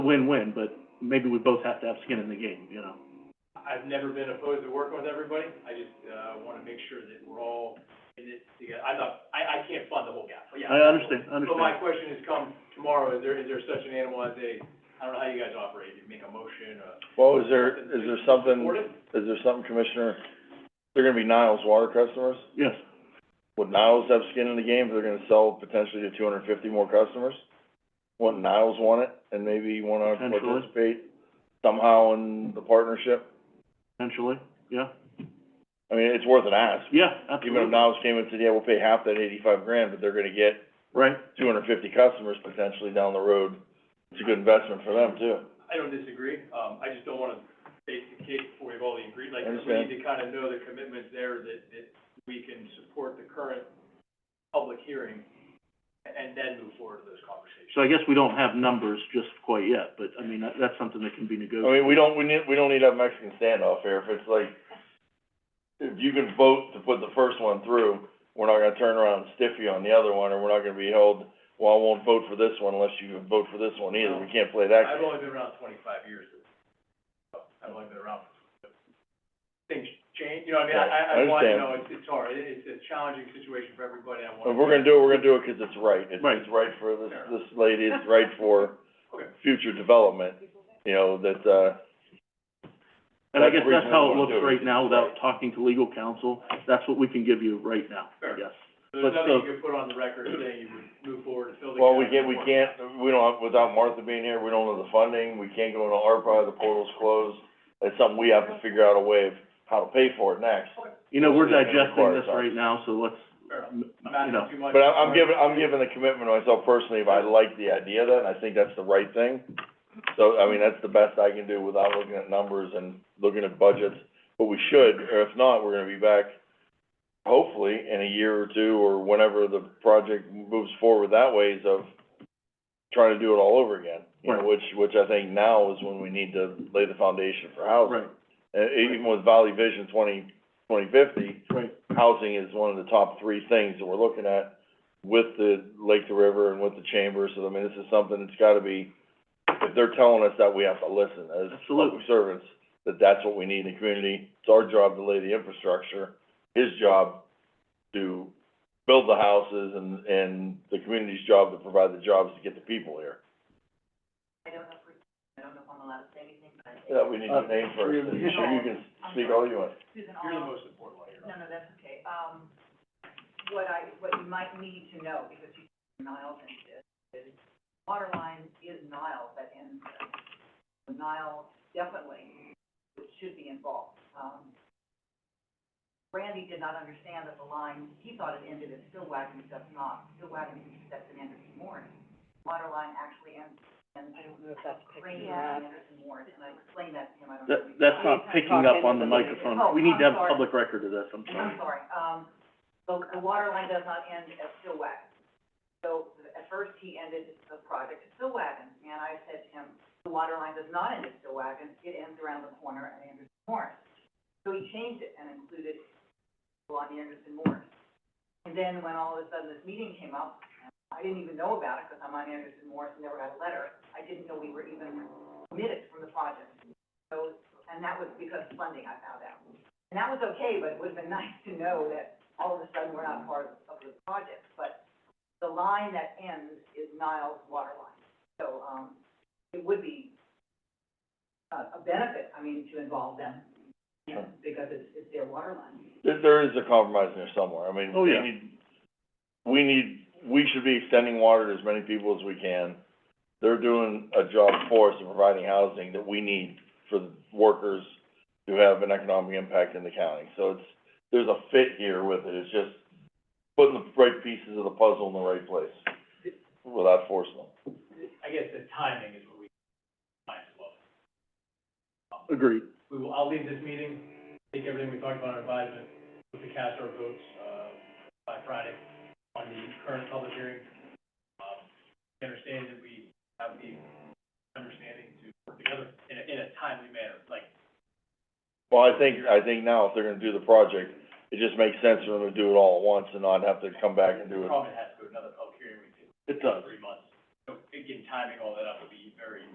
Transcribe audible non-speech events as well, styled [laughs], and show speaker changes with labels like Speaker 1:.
Speaker 1: win-win, but maybe we both have to have skin in the game, you know?
Speaker 2: I've never been opposed to working with everybody, I just, uh, wanna make sure that we're all in it together. I thought, I, I can't fund the whole gap, but yeah.
Speaker 1: I understand, I
Speaker 2: So my
Speaker 1: understand.
Speaker 2: question is, come tomorrow, is there, is there such an animal as a, I don't know how you guys operate, you make a motion, uh?
Speaker 3: Well, Oh, is there, is there something,
Speaker 2: Support it?
Speaker 3: is there something, Commissioner, they're gonna be Niles water customers?
Speaker 1: Yes,
Speaker 3: Would Niles have skin in the game if they're gonna sell potentially to two hundred and fifty more customers? Wouldn't Niles want it and maybe wanna
Speaker 1: Potentially.
Speaker 3: participate somehow in the partnership?
Speaker 1: potentially, yeah,
Speaker 3: I mean, it's worth an ask.
Speaker 1: yeah, absolutely,
Speaker 3: Even if Niles came and said, yeah, we'll pay half that eighty-five grand, but they're gonna get
Speaker 1: right,
Speaker 3: two hundred and fifty customers potentially down the road, it's a good investment for them too.
Speaker 2: I don't disagree, um, I just don't wanna bake the cake before we've all agreed, like,
Speaker 3: I
Speaker 2: we
Speaker 3: understand.
Speaker 2: need to kinda know the commitments there that, that we can support the current public hearing and, and then move forward to those conversations.
Speaker 1: so I guess we don't have numbers just quite yet, but, I mean, that, that's something that can be
Speaker 3: I
Speaker 1: negotiated.
Speaker 3: mean, we don't, we need, we don't need a Mexican standoff here, if it's like, if you can vote to put the first one through, we're not gonna turn around and stiff you on the other one, or we're not gonna be held, well, I won't vote for this one unless you vote for this one either, we can't play that
Speaker 2: I've
Speaker 3: game.
Speaker 2: only been around twenty-five years, so I've only been around, things change, you know, I mean, I, I, I
Speaker 3: Right, I
Speaker 2: want, you
Speaker 3: understand.
Speaker 2: know, it's, it's hard, it, it's a challenging situation for everybody, I want.
Speaker 3: If we're gonna do it, we're gonna do it 'cause it's right, it's,
Speaker 1: Right.
Speaker 3: it's right for this, this lady, it's right for
Speaker 2: Okay.
Speaker 3: future development, you know, that, uh,
Speaker 1: And I
Speaker 3: Oh, That's
Speaker 1: guess
Speaker 3: the
Speaker 1: that's
Speaker 3: reason
Speaker 1: how it
Speaker 3: we wanna
Speaker 1: looks
Speaker 3: do it.
Speaker 1: right now, without talking to legal counsel, that's what we can give you right now, I
Speaker 2: Fair.
Speaker 1: guess.
Speaker 2: So There's
Speaker 1: but
Speaker 2: nothing you could put on the record saying you would move forward to fill the gap.
Speaker 3: well, we can't, we can't, we don't, have- without Martha being here, we don't know the funding, we can't go into ARPA, the portal's closed. It's something we have to figure out a way of how to pay for it next.
Speaker 1: You know, we're
Speaker 3: It's gonna
Speaker 1: digesting
Speaker 3: require
Speaker 1: this
Speaker 3: some.
Speaker 1: right now, so let's,
Speaker 2: Fair enough.
Speaker 1: m-
Speaker 2: I'm not
Speaker 1: you know,
Speaker 2: too much.
Speaker 3: But I, I'm giving, I'm giving the commitment to myself personally, if I like the idea of that, and I think that's the right thing. So, I mean, that's the best I can do without looking at numbers and looking at budgets, but we should, or if not, we're gonna be back hopefully in a year or two, or whenever the project moves forward that ways of trying to do it all over again. You know,
Speaker 1: Right.
Speaker 3: which, which I think now is when we need to lay the foundation for housing.
Speaker 1: right,
Speaker 3: And even with Valley Vision twenty, twenty fifty,
Speaker 1: right,
Speaker 3: housing is one of the top three things that we're looking at with the Lake to River and with the chamber, so I mean, this is something that's gotta be, if they're telling us that, we have to listen as public
Speaker 1: Absolutely.
Speaker 3: servants, that that's what we need in the community. It's our job to lay the infrastructure, his job to build the houses and, and the community's job to provide the jobs to get the people here.
Speaker 4: I don't know if we, I don't know if I'm allowed to say anything, but
Speaker 3: Yeah, we need a name first, and you can speak all you want.
Speaker 4: Susan,
Speaker 2: You're the
Speaker 4: all,
Speaker 2: most important one here.
Speaker 4: no, no, that's okay. Um, what I, what you might need to know, because you, Niles and this, is water line is Niles that ends there. So Niles definitely should be involved. Um, Randy did not understand that the line, he thought it ended at Stillwagon, it does not. Stillwagon intersects at Anderson Warren. Water line actually ends, ends
Speaker 5: I don't know if that's
Speaker 4: Randy
Speaker 5: picking it up.
Speaker 4: and Anderson Warren, and I explained that to him, I don't know.
Speaker 1: that,
Speaker 4: if he-
Speaker 1: that's not picking up on the microphone,
Speaker 4: Oh,
Speaker 1: we need to have
Speaker 4: I'm sorry.
Speaker 1: public record of this, I'm sorry.
Speaker 4: I'm sorry, um, the, the water line does not end at Stillwagon. So at first he ended the project at Stillwagon, and I said to him, the water line does not end at Stillwagon, it ends around the corner at Anderson Morris. So he changed it and included along Anderson Morris. And then when all of a sudden this meeting came up, I didn't even know about it because I'm on Anderson Morris and never got a letter. I didn't know we were even committed from the project. So, and that was because of funding, I found out. And that was okay, but it would've been [laughs] nice to know that all of a sudden we're not part of, of the project, but the line that ends is Niles water line. So, um, it would be a, a benefit, I mean, to involve them, you know, because it's, it's their water line.
Speaker 3: There, there is a compromise in there somewhere, I mean,
Speaker 1: Oh,
Speaker 3: we
Speaker 1: yeah.
Speaker 3: need, we need, we should be extending water to as many people as we can. They're doing a job for us in providing housing that we need for the workers to have an economic impact in the county. So it's, there's a fit here with it, it's just putting the right pieces of the puzzle in the right place without forcing them.
Speaker 2: I guess the timing is what we, might as well.
Speaker 1: Agreed,
Speaker 2: We will, I'll leave this meeting, take everything we talked about in advisement, put the cast our votes, uh, by Friday on the current public hearing. Um, I understand that we have the understanding to work together in a, in a timely manner, like,
Speaker 3: Well, I think, I think now if they're gonna do the project, it just makes sense for them to do it all at once and not have to come back and do it.
Speaker 2: probably has to go to another public hearing, we could
Speaker 1: it does,
Speaker 2: three months. So, again, timing all that up would be